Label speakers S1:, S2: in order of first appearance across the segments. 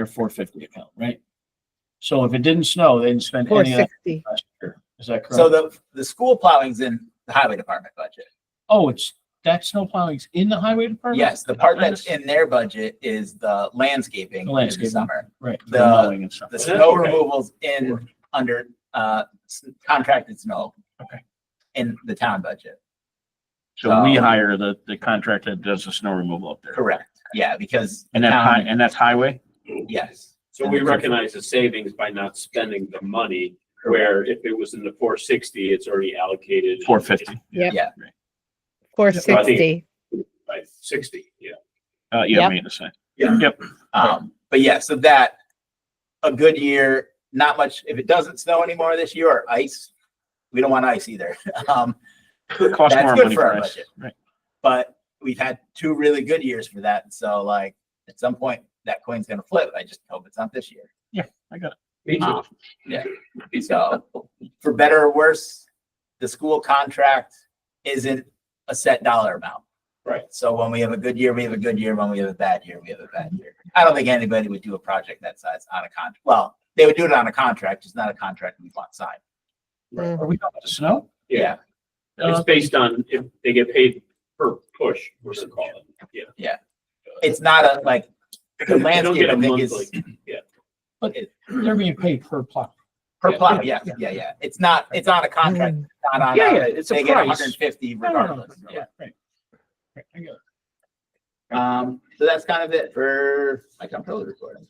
S1: their four fifty account, right? So if it didn't snow, they didn't spend
S2: Four
S1: any of that
S2: sixty.
S1: last year. Is that
S3: So
S1: correct?
S3: the, the school plowing's in the highway department budget.
S1: Oh, it's, that snow plowing's in the highway department?
S3: Yes, the part that's in their budget is the landscaping in the
S1: Landscaping.
S3: summer.
S1: Right.
S3: the-
S1: mowing and stuff.
S3: The
S1: Okay.
S3: snow removal's in, under, uh, s- contracted snow.
S1: Okay.
S3: In the town budget,
S4: So we
S3: Um,
S4: hire the, the contractor that does the snow removal up there.
S3: correct, yeah, because.
S4: And that, hi- and that's highway?
S3: Yes,
S5: So we recognize the savings by not spending the money, where if it was in the four sixty, it's already allocated.
S4: Four fifty.
S2: Yep.
S3: Yeah.
S2: Four
S5: So I think-
S2: sixty.
S5: By sixty, yeah.
S4: Uh, yeah,
S2: Yep.
S4: maintenance.
S5: Yeah.
S4: Yep.
S3: um, but yeah, so that, a good year, not much, if it doesn't snow anymore this year or ice, we don't want ice either. Um,
S4: Cost
S3: That's
S4: more
S3: good
S4: money
S3: for
S4: for
S3: our
S4: us.
S3: budget.
S4: Right.
S3: but we've had two really good years for that, so like, at some point, that coin's gonna flip, I just hope it's not this year.
S4: I got it.
S5: Me
S4: too.
S3: So for better or worse, the school contract isn't a set dollar amount.
S5: Right.
S3: So when we have a good year, we have a good year. When we have a bad year, we have a bad year. I don't think anybody would do a project that size on a contract. Well, they would do it on a contract, just not a contract we want signed.
S1: Are we talking about the snow?
S5: Yeah, it's
S1: Uh,
S5: based on if they get paid per push, we're gonna call it, yeah.
S3: It's not a like, the
S5: They don't
S3: landscape,
S5: get
S3: I
S5: a
S3: think is
S5: monthly,
S1: They're being paid per plow.
S3: per
S5: yeah.
S3: plot. Yeah, yeah, yeah. It's not, it's on a contract,
S2: Mm.
S3: not on
S5: Yeah, yeah,
S3: a,
S5: it's a
S3: they get
S5: price.
S3: hundred and fifty
S1: No, no, no,
S3: regardless.
S1: no,
S3: Yeah.
S1: right, right. Right, I get it.
S3: Um, so that's kind of it for my controller recording.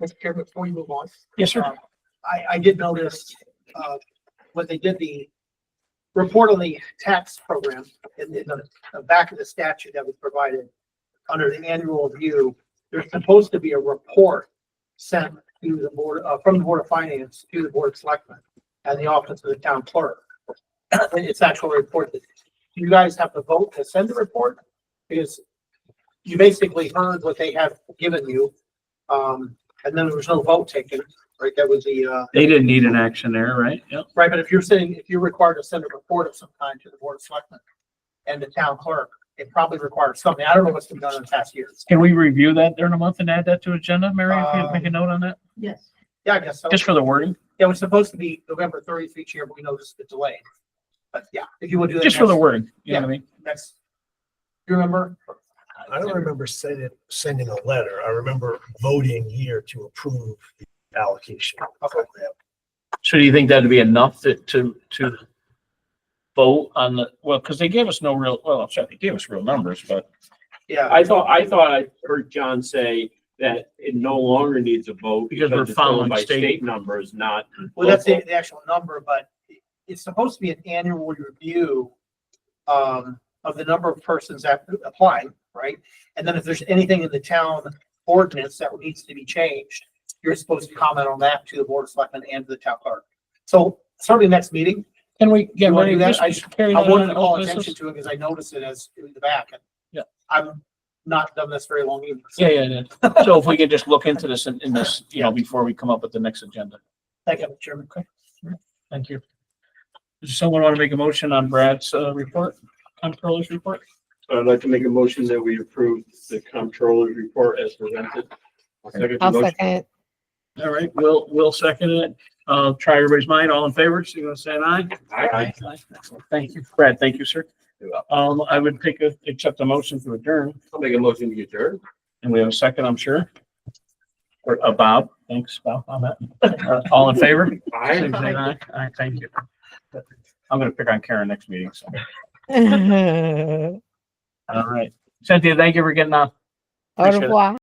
S6: Mr. Chair, before you move on,
S1: Yes, sir.
S3: Um,
S6: Uh, I, I did notice, uh, when they did the report on the tax program in, in the, the back of the statute that was provided under the annual review, there's supposed to be a report sent to the board, uh, from the Board of Finance to the Board of Selectmen and the Office of the Town Clerk. It's actual report that you guys have to vote to send the report because you basically heard what they have given you. Um, and then there was no vote taken, right? That was the, uh,
S1: They didn't need an action there, right? Yep.
S6: Right, but if you're saying, if you're required to send a report of some kind to the board of selectmen and the town clerk, it probably requires something. I don't know what's been done in the past years.
S1: Can we review that during a month and add that to agenda, Mary? If you
S6: Um,
S1: make a note on that,
S6: Yes. Yeah, I guess so.
S1: just for the wording,
S6: It was supposed to be November thirtieth each year, but we noticed the delay. But yeah, if you would do that.
S1: just for the
S6: next-
S1: wording, you know what I mean?
S6: Next. You remember?
S7: I don't remember sending, sending a letter. I remember voting here to approve the allocation.
S1: So do you think that'd be enough to, to, to vote on the, well, because they gave us no real, well, I'm sorry, they gave us real numbers, but
S6: Yeah,
S5: I thought, I thought I heard John say that it no longer needs a vote.
S1: Because we're
S5: it's going
S1: following
S5: by
S1: state-
S5: State numbers, not.
S6: well, that's the,
S5: local.
S6: the actual number, but it's supposed to be an annual review um, of the number of persons that apply, right? And then if there's anything in the town ordinance that needs to be changed, you're supposed to comment on that to the board of selectmen and to the town clerk. So certainly next meeting,
S1: can we, yeah,
S6: You wanna
S1: Mary,
S6: do that?
S1: just
S6: I-
S1: just carry
S6: I
S1: that on
S6: wanted to
S1: to
S6: call
S1: old
S6: attention
S1: business?
S6: to it because I noticed it as in the back. and
S1: Yeah.
S6: I've not done this very long either. so
S1: Yeah, yeah, yeah. So if we could just look into this in, in this, you know, before we come up with the next agenda.
S6: Thank you, Mr. Chairman.
S1: Thank you. Does someone want to make a motion on Brad's, uh, report, controller's report?
S5: So I'd like to make a motion that we approve the comptroller's report as presented. Second
S2: I'll
S5: motion.
S2: second.
S1: All right, we'll, we'll second it. Uh, try everybody's mind. All in favor, so you want to say an aye?
S5: Aye.
S1: Excellent. Thank you, Brad. Thank you, sir.
S3: You're welcome.
S1: Um, I would take a, accept the motion to adjourn,
S5: I'll make a motion to adjourn.
S1: and we have a second, I'm sure. Or, uh, Bob, thanks, Bob, on that. Uh, All in favor?
S5: Aye.
S1: Please say aye. Aye, thank you. I'm gonna pick on Karen next meeting, so.
S2: Au
S1: All right. Cynthia, thank you for getting on. Appreciate it.
S2: revoir.